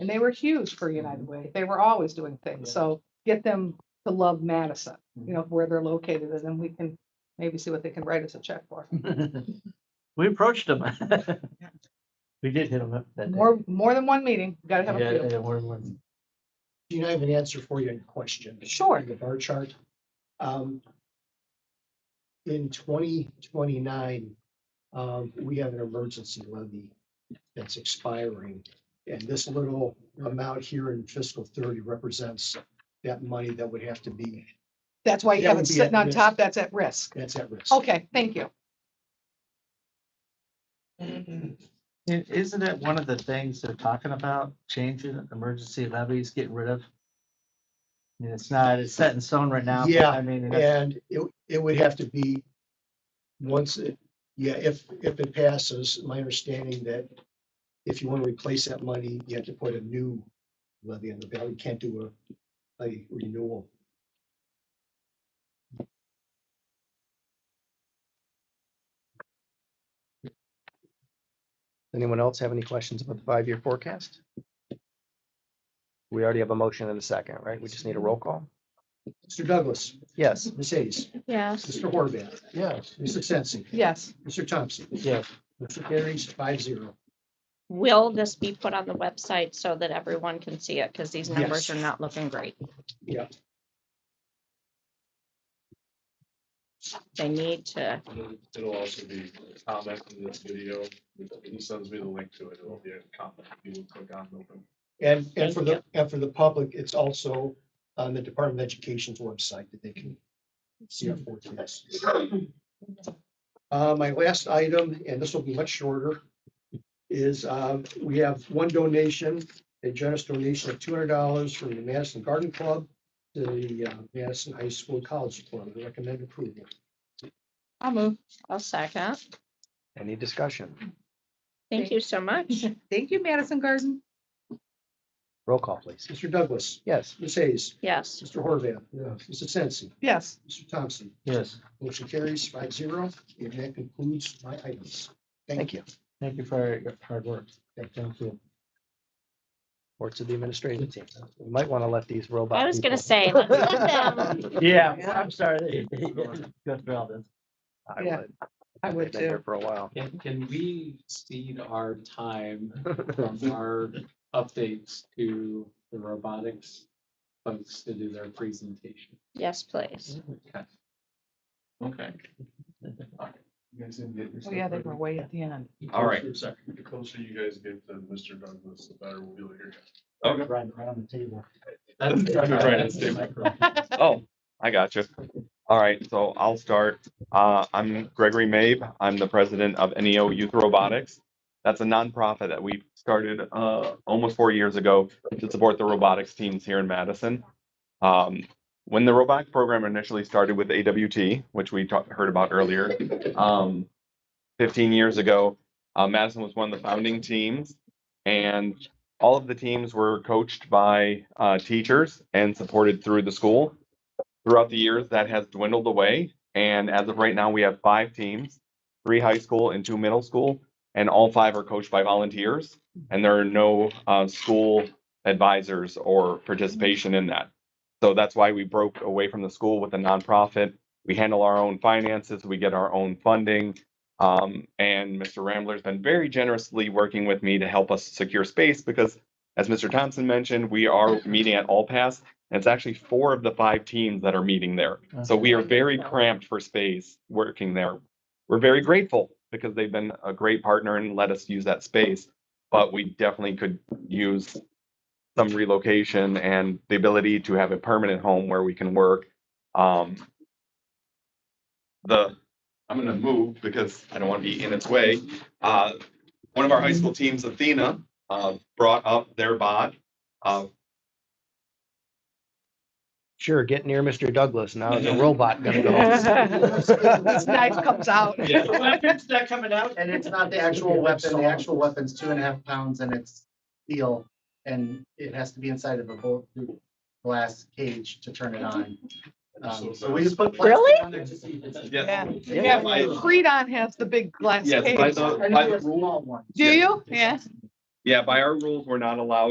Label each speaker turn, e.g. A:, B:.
A: And they were huge for United Way. They were always doing things. So get them to love Madison, you know, where they're located, and then we can maybe see what they can write us a check for.
B: We approached them. We did hit them up that day.
A: More, more than one meeting, gotta have
B: Yeah,
A: a few.
B: yeah, we're- we're-
C: Do you know, I have an answer for you in question?
A: Sure.
C: In The bar chart. Um, In twenty twenty-nine, um, we have an emergency levy that's expiring. And this little amount here in fiscal thirty represents that money that would have to be,
A: That's why you
C: That
A: have
C: would
A: it
C: be at
A: sitting on
C: risk.
A: top, that's at risk.
C: that's at risk.
A: Okay, thank you.
B: i- Isn't it one of the things they're talking about, changing emergency levies, getting rid of? I mean, It's not, it's set in stone right now. but
C: Yeah,
B: I mean, that's-
C: And it, it would have to be, once it, yeah, if, if it passes, my understanding that if you want to replace that money, you have to put a new levy on the ballot. You can't do a, a renewal.
D: Anyone else have any questions about the five-year forecast? We already have a motion and a second, right? We just need a roll call.
C: Mr. Douglas,
D: Yes.
C: Ms. Hayes,
E: Yes.
C: Mr. Horvath,
D: Yes.
C: Mr. Sensi,
A: Yes,
C: Mr. Thompson.
B: Yes.
C: Mr. carries five zero.
E: Will this be put on the website so that everyone can see it? Because these numbers are
C: Yes.
E: not looking great.
C: Yeah.
E: They need to,
F: It'll- It'll also be comment in this video. He sends me the link to it. It'll be a comment. You will click on it.
C: And, and for
E: Thank
C: the, and for the public, it's also on the Department of Education's website that they can see our forecast. Uh, my last item, and this will be much shorter, is, um, we have one donation, a generous donation of two hundred dollars from the Madison Garden Club to the uh, Madison High School College Club. I Recommend approval.
A: I'll move.
E: I'll second.
D: Any discussion?
E: Thank you so much.
A: Thank you, Madison Garden.
D: Roll call, please.
C: Mr. Douglas,
D: Yes.
C: Ms. Hayes,
E: Yes.
C: Mr. Horvath. Mr. Sensi,
A: Yes,
C: Mr. Thompson.
B: yes,
C: Motion carries five zero, and that concludes my items.
D: Thank you.
B: thank you for your hard work.
C: Yeah.
B: Thank you.
D: Reports of the administration team. We might want to let these robots.
E: I was gonna say, let's let them,
B: Yeah, I'm sorry. Go through all this.
A: Yeah, I would
D: They've been here
A: too.
D: For a while.
G: Can, can we cede our time from our updates to the robotics folks to do their presentation?
E: yes, please.
F: Okay. You guys didn't get
A: Oh, yeah, they were way at the end.
H: All right,
F: Sorry. The closer you guys get to Mr. Douglas, the better we'll be here.
B: Right, right on the table.
G: That's-
F: Right, that's the
H: Oh, I got you. All right, so I'll start. Uh, I'm Gregory Mabe. I'm the president of NEO E Youth Robotics. That's a nonprofit that we started uh, almost four years ago to support the robotics teams here in Madison. Um, when the robotics program initially started with AWT, which we talked, heard about earlier, um, 15 years ago, uh, Madison was one of the founding teams, and all of the teams were coached by uh, teachers and supported through the school throughout the years that has dwindled away and as of right now we have five teams three high school and two middle school and all five are coached by volunteers and there are no uh, school advisors or participation in that so that's why we broke away from the school with a nonprofit we handle our own finances we get our own funding um, and mr rambler's been very generously working with me to help us secure space because as mr thompson mentioned we are meeting at all pass and it's actually four of the five teams that are meeting there. So we are very cramped for space working there. We're very grateful because they've been a great partner and let us use that space. But we definitely could use some relocation and the ability to have a permanent home where we can work. Um, the, I'm gonna move because I don't want to be in its way. Uh, one of our high school teams, Athena, uh, brought up their bot, uh,
D: Sure, get near Mr. Douglas. Now is a robot gonna go.
A: This knife comes out.
B: Yeah, the weapon's not coming out.
I: And it's not the actual weapon, the actual weapon's two and a half pounds and it's steel. And it has to be inside of a bulletproof glass cage to turn it on. Um, So we just put. plastic
E: Really?
I: on there to see if it's-
A: Yeah.
H: yes,
A: Yeah,
H: Yeah.
A: Freedon has the big glass
H: yes, by
A: cage.
H: the,
I: I
H: by
I: know
H: the
I: it's a small one.
A: Do you? Yeah.
H: Yeah, by our rules, we're not allowed